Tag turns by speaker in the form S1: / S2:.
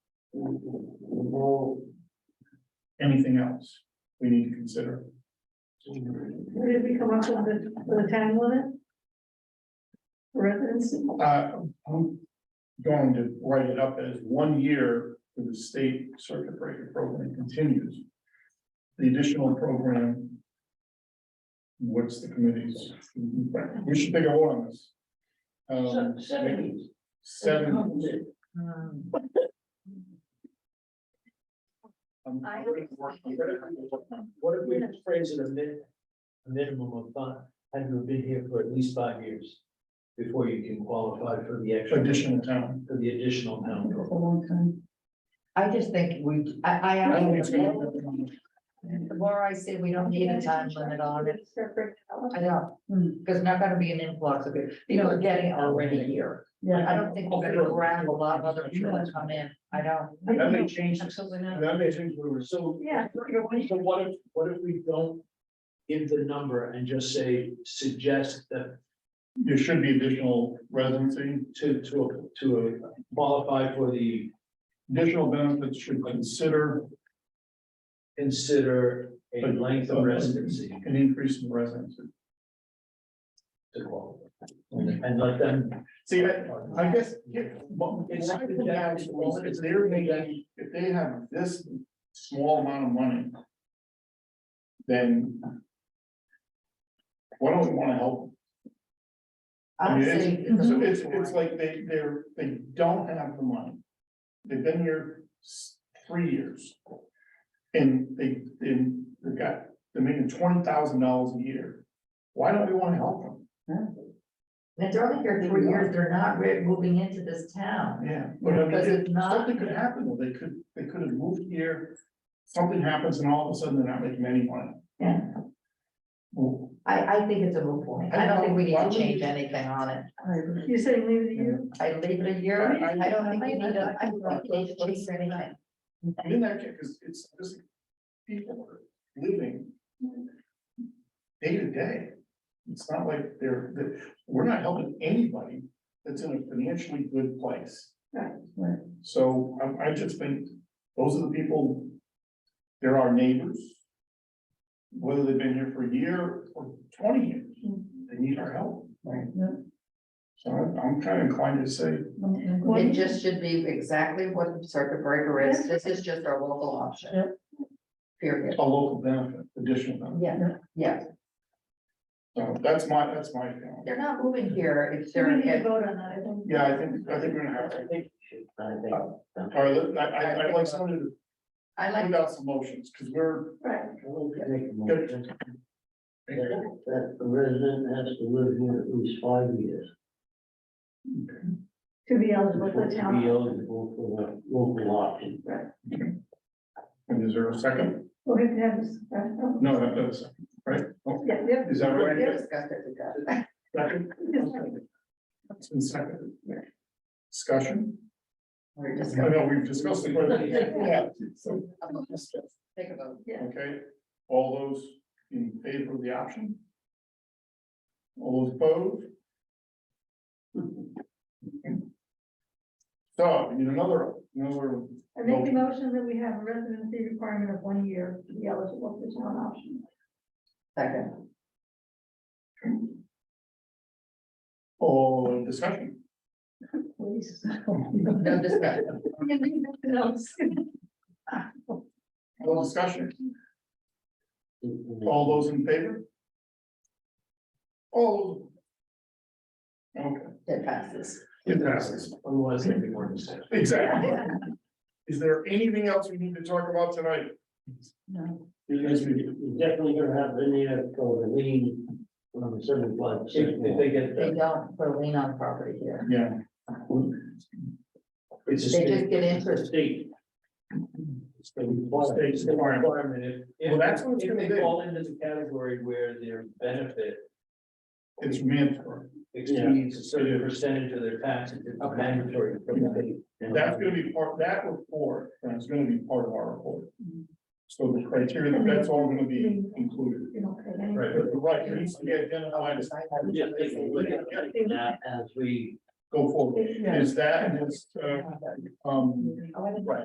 S1: Anything else we need to consider?
S2: Where did we come up with the, with the time limit? For Residency?
S1: Uh, I'm going to write it up as one year for the state circuit breaker program continues. The additional program. What's the committee's, we should take a vote on this. Um, Seven. Um,
S2: I-
S3: What if we phrase it a min, a minimum of five, had to have been here for at least five years before you can qualify for the extra,
S1: Additional town.
S3: for the additional town vote.
S4: a long time. I just think we, I, I,
S1: I don't think
S4: have
S1: it's
S4: the
S1: gonna-
S4: more I say we don't need a time limit on it,
S2: Start breaking out.
S4: I know, because not gonna be an influx of it, you know, we're getting already here. I don't think we're gonna grab a lot of other people that come in, I don't.
S1: That may change,
S4: Absolutely not.
S1: that may change, we were
S3: So,
S2: Yeah.
S3: so what if, what if we don't give the number and just say, suggest that
S1: there should be additional residency,
S3: to, to, to qualify for the,
S1: additional benefits should consider
S3: consider a length of residency
S1: an increase in residency.
S3: to qualify. And let them.
S1: See, I, I guess, yeah, well, it's, I think that's- well, if they're making, if they have this small amount of money. Then. Why don't we wanna help? them? I
S4: I'm
S1: mean, it's,
S4: saying. it's a-
S1: it's, it's like they, they're, they don't have the money. They've been here s- three years. And they, and they've got, they're making twenty thousand dollars a year. Why don't we wanna help them?
S4: If they're only here three years, they're not re- moving into this town.
S1: Yeah, but I mean,
S4: Because
S1: it-
S4: it's not-
S1: something could happen, though, they could, they could have moved here, something happens and all of a sudden they're not making any money.
S4: Yeah.
S1: Well,
S4: I, I think it's a moot point, I don't think we need to change anything on it.
S2: You say leave the year?
S4: I leave it a year, I don't think we need to, I don't think we need to change anything.
S1: And in that case, because it's just people are living day to day. It's not like they're, that, we're not helping anybody that's in a financially good place.
S2: Right.
S4: Right.
S1: So um, I, I just think those are the people, they're our neighbors. Whether they've been here for a year or twenty years, they need our help. Right.
S4: Yeah.
S1: So I'm, I'm kind of inclined to say,
S4: It just should be exactly what the circuit breaker is, this is just our local option. Period,
S1: a local benefit, additional benefit.
S4: yeah, yeah,
S1: So that's my, that's my feeling.
S4: they're not moving here if
S2: We
S4: they're,
S2: need to
S4: if,
S2: vote on that, I think.
S1: Yeah, I think, I think we're gonna have to, all right, let- I, I, I'd like someone to
S4: I like,
S1: put out some motions, because we're.
S2: Right,
S1: gonna-
S5: That, that the resident has to live here at least five years.
S2: to be eligible
S5: before
S2: for the
S5: to Be
S2: town.
S5: eligible for the local option.
S1: And is there a second?
S2: We'll have to have this. uh,
S1: No, that does, right? Oh,
S2: Yeah, yeah.
S1: Is that
S4: we're
S1: right?
S4: gonna discuss it, we got it.
S1: Second? It's been seconded. Discussion?
S4: we're
S1: I
S4: discussing.
S1: know, we've discussed it. but- Yeah, so-
S4: Take a vote.
S1: Okay, all those in favor of the option? All those opposed? So, we need another, another
S2: I make the motion that we have a residency requirement of one year to be eligible for the town option.
S4: Second,
S1: Oh, discussion.
S2: Please.
S4: no discussion,
S1: No discussion. All those in favor? All. Okay,
S4: it passes.
S1: it passes.
S3: Otherwise, they'd be more than safe.
S1: Exactly. Is there anything else we need to talk about tonight?
S4: No.
S5: Because we we definitely gonna have linear for the lien um, on the seventy-five
S3: If,
S5: percent.
S3: if they get
S4: They
S3: that,
S4: don't put a lien on property here,
S1: Yeah.
S3: it's a
S4: They just
S3: state.
S4: get
S3: it's a
S4: interest.
S3: State. It's the requirement.
S1: State's
S3: It's the
S1: requirement.
S3: requirement. If-
S1: Well, that's what it's
S3: If
S1: gonna
S3: they
S1: be.
S3: fall into the category where their benefit
S1: It's mandatory.
S3: exceeds a certain percentage of their taxes, it's
S4: Okay.
S3: mandatory from the state.
S1: That's gonna be part, that report, and it's gonna be part of our report. So the criteria, that's all gonna be included.
S2: You don't pay any.
S1: Right, but the right, it needs to be identified as,
S3: Yeah, they can look at it now As we
S1: go forward. Is that, and it's, uh, um,
S4: Oh, I wanna-